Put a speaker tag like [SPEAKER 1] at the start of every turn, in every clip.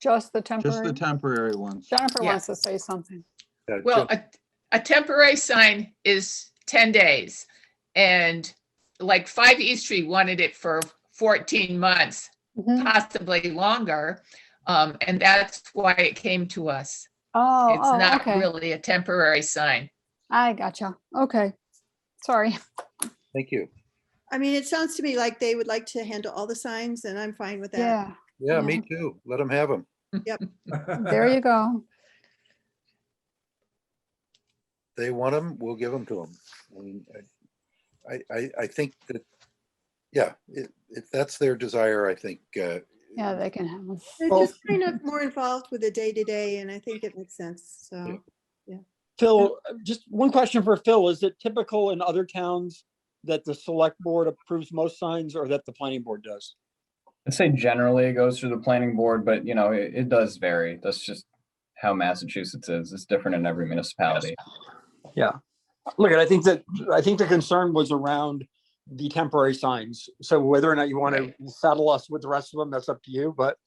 [SPEAKER 1] just the
[SPEAKER 2] Just the
[SPEAKER 1] temporary?
[SPEAKER 2] temporary ones.
[SPEAKER 1] Jennifer
[SPEAKER 3] Yeah.
[SPEAKER 1] wants to say something.
[SPEAKER 4] Yeah,
[SPEAKER 3] Well,
[SPEAKER 4] just-
[SPEAKER 3] a, a temporary sign is ten days. And like Five East Street wanted it for fourteen months,
[SPEAKER 1] Mhm.
[SPEAKER 3] possibly longer. Um, and that's why it came to us.
[SPEAKER 1] Oh,
[SPEAKER 3] It's
[SPEAKER 1] oh,
[SPEAKER 3] not
[SPEAKER 1] okay.
[SPEAKER 3] really a temporary sign.
[SPEAKER 1] I gotcha. Okay. Sorry.
[SPEAKER 4] Thank you.
[SPEAKER 5] I mean, it sounds to me like they would like to handle all the signs and I'm fine with that.
[SPEAKER 1] Yeah,
[SPEAKER 4] Yeah, me too. Let them have them.
[SPEAKER 1] there you go.
[SPEAKER 4] They want them, we'll give them to them. I mean, I- I, I, I think that, yeah, if, if that's their desire, I think, uh,
[SPEAKER 1] Yeah, they can have them.
[SPEAKER 5] They're
[SPEAKER 6] Well-
[SPEAKER 5] just kind of more involved with the day-to-day and I think it makes sense,
[SPEAKER 4] Yeah.
[SPEAKER 5] so.
[SPEAKER 6] Phil, uh, just one question for Phil. Is it typical in other towns that the select board approves most signs or that the planning board does?
[SPEAKER 7] I'd say generally it goes through the planning board, but you know, it, it does vary. That's just how Massachusetts is. It's different in every municipality.
[SPEAKER 6] Look, I think that, I think the concern was around the temporary signs. So whether or not you want to
[SPEAKER 3] Right.
[SPEAKER 6] saddle us with the rest of them, that's up to you. But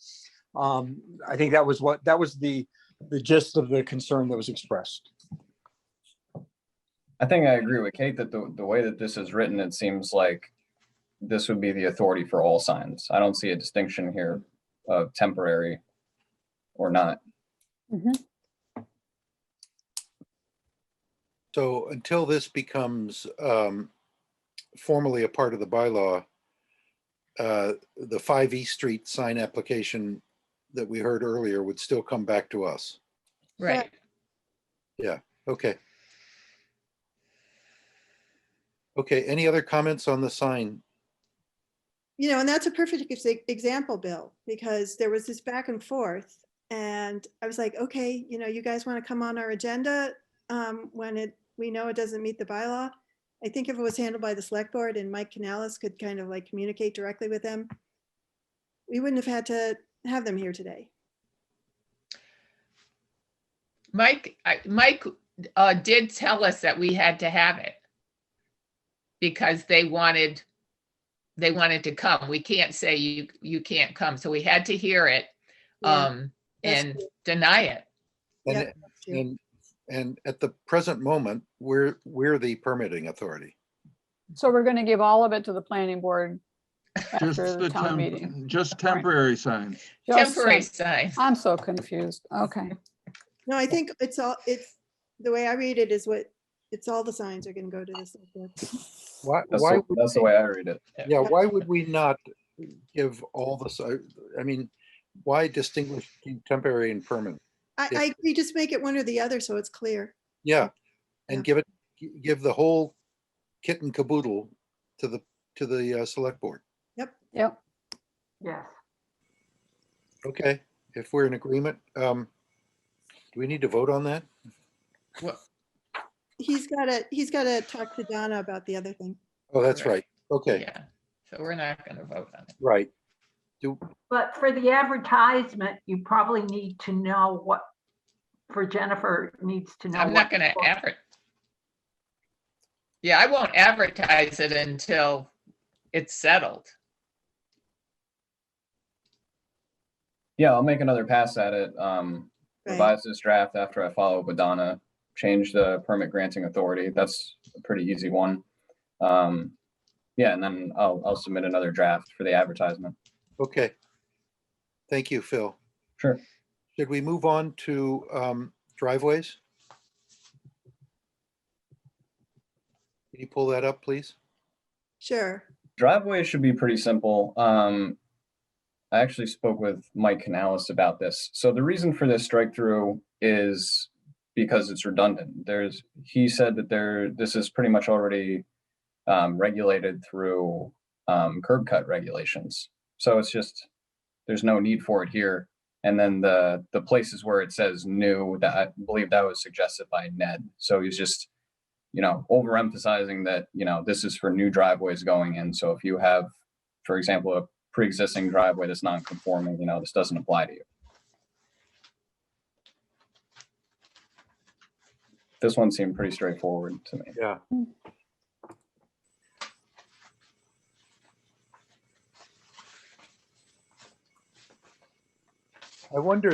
[SPEAKER 6] um, I think that was what, that was the, the gist of the concern that was expressed.
[SPEAKER 7] I think I agree with Kate that the, the way that this is written, it seems like this would be the authority for all signs. I don't see a distinction here of temporary or not.
[SPEAKER 1] Mm-hmm.
[SPEAKER 4] so until this becomes, um, formally a part of the bylaw, uh, the five East Street sign application that we heard earlier would still come back to us.
[SPEAKER 3] Right.
[SPEAKER 4] Okay. Okay, any other comments on the sign?
[SPEAKER 5] You know, and that's a perfect ex- example, Bill, because there was this back and forth. And I was like, okay, you know, you guys want to come on our agenda um, when it, we know it doesn't meet the bylaw. I think if it was handled by the select board and Mike Canales could kind of like communicate directly with them, we wouldn't have had to have them here today.
[SPEAKER 3] Mike, I, Mike, uh, did tell us that we had to have it. Because they wanted, they wanted to come. We can't say you, you can't come. So we had to hear it,
[SPEAKER 5] Yeah,
[SPEAKER 3] um,
[SPEAKER 5] that's
[SPEAKER 3] and
[SPEAKER 5] true.
[SPEAKER 3] deny it.
[SPEAKER 4] And-
[SPEAKER 5] Yeah, that's true.
[SPEAKER 4] And, and at the present moment, we're, we're the permitting authority.
[SPEAKER 1] So we're gonna give all of it to the planning board
[SPEAKER 2] Just
[SPEAKER 1] after the
[SPEAKER 2] the
[SPEAKER 1] town meeting.
[SPEAKER 2] temp, just
[SPEAKER 1] All right.
[SPEAKER 2] temporary signs.
[SPEAKER 1] Just
[SPEAKER 3] Temporary
[SPEAKER 1] so-
[SPEAKER 3] sign.
[SPEAKER 1] I'm so confused. Okay.
[SPEAKER 5] No, I think it's all, it's, the way I read it is what, it's all the signs are going to go to this.
[SPEAKER 4] Why,
[SPEAKER 7] That's,
[SPEAKER 4] why,
[SPEAKER 7] the-
[SPEAKER 4] would-
[SPEAKER 7] that's the way I read it.
[SPEAKER 4] yeah, why would we not give all the, si- I mean, why distinguish between temporary and permanent?
[SPEAKER 5] I,
[SPEAKER 4] Yeah.
[SPEAKER 5] I, we just make it one or the other so it's clear.
[SPEAKER 4] Yeah, and
[SPEAKER 5] Yeah.
[SPEAKER 4] give it, gi- give the whole kit and caboodle to the, to the uh, select board.
[SPEAKER 1] Yep.
[SPEAKER 4] Okay, if we're in agreement, um, do we need to vote on that?
[SPEAKER 5] He's gotta, he's gotta talk to Donna about the other thing.
[SPEAKER 4] Oh, that's right.
[SPEAKER 3] Correct.
[SPEAKER 4] Okay,
[SPEAKER 3] Yeah. So we're not gonna vote on it.
[SPEAKER 4] right. Do,
[SPEAKER 8] But for the advertisement, you probably need to know what, for Jennifer needs to know.
[SPEAKER 3] I'm
[SPEAKER 8] what-
[SPEAKER 3] not gonna advert. Yeah, I won't advertise it until it's settled.
[SPEAKER 7] Yeah, I'll make another pass at it. Um,
[SPEAKER 5] Right?
[SPEAKER 7] revise this draft after I follow up with Donna, change the permit granting authority. That's a pretty easy one. Um, yeah, and then I'll, I'll submit another draft for the advertisement.
[SPEAKER 4] okay. Thank you, Phil.
[SPEAKER 7] Sure.
[SPEAKER 4] Should we move on to um, driveways? Can you pull that up, please?
[SPEAKER 5] Sure.
[SPEAKER 7] Driveways should be pretty simple. Um, I actually spoke with Mike Canales about this. So the reason for this strike through is because it's redundant. There's, he said that there, this is pretty much already um, regulated through um, curb cut regulations. So it's just, there's no need for it here. And then the, the places where it says new, that I believe that was suggested by Ned. So he's just, you know, overemphasizing that, you know, this is for new driveways going in. So if you have, for example, a pre-existing driveway that's non-conforming, you know, this doesn't apply to you. This one seemed pretty straightforward to me.
[SPEAKER 4] Yeah. I wonder